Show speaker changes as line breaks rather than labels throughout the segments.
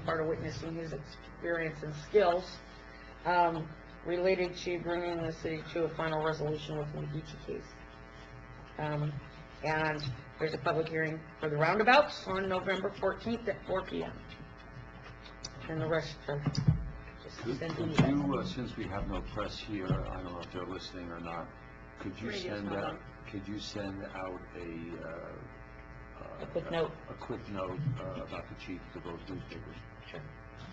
part of witnessing his experience and skills, um, related to bringing the city to a final resolution within each case. Um, and there's a public hearing for the roundabouts on November fourteenth at four P M. And the rest are just
Could
sent to
could
you
you, uh,
guys.
since we have no press here, I don't know if they're listening or not, could you
Radio's
send
not
out,
on.
could you send out a, uh... uh,
A quick note.
A quick note, uh, about the chief to those newspapers?
Sure.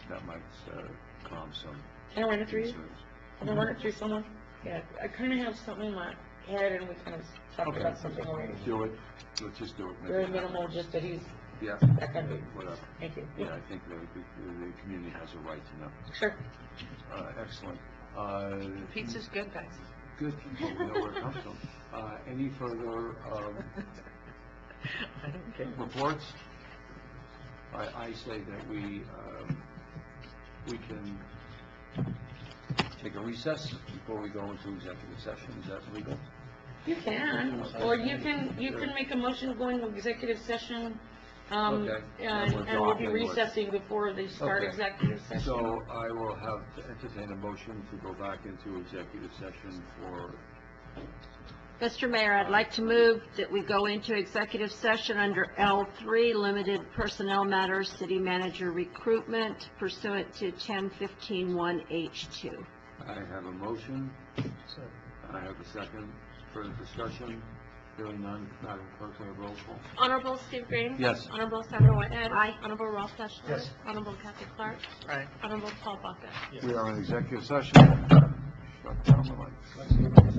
That might, uh, calm some
Can I run it through you?
concerns.
Can I run it through someone? Yeah, I kinda have something in my head and we kind of talked
Okay.
about something already.
Do it, let's just do it. maybe.
Very minimal, just that he's,
Yeah,
that kind of-
whatever.
thank you.
Yeah, I think the, the, the community has a right to know.
Sure.
Uh, excellent. Uh,
Pizza's good, guys.
Good, you know where it comes from. Uh, any further, um,
I don't care.
reports? I, I say that we, um, we can take a recess before we go into executive session, is that legal?
You can, or you can, you can make a motion to go into executive session, um,
Okay.
and, and we'll be recessing before they start
Okay.
executive session.
So I will have, to entertain a motion to go back into executive session for,
Mr. Mayor, I'd like to move that we go into executive session under L3, limited personnel matters, city manager recruitment pursuant to 10151H2.
I have a motion. I have a second, further discussion, hearing none, Madam Clerk, will you roll call?
Honorable Steve Green?
Yes.
Honorable Sandra Whitehead?
Aye.
Honorable Ralph Deschler?
Yes.
Honorable Kathy Clark?
Right.
Honorable Paul Buckett?
We are in executive session. Shut down the lights.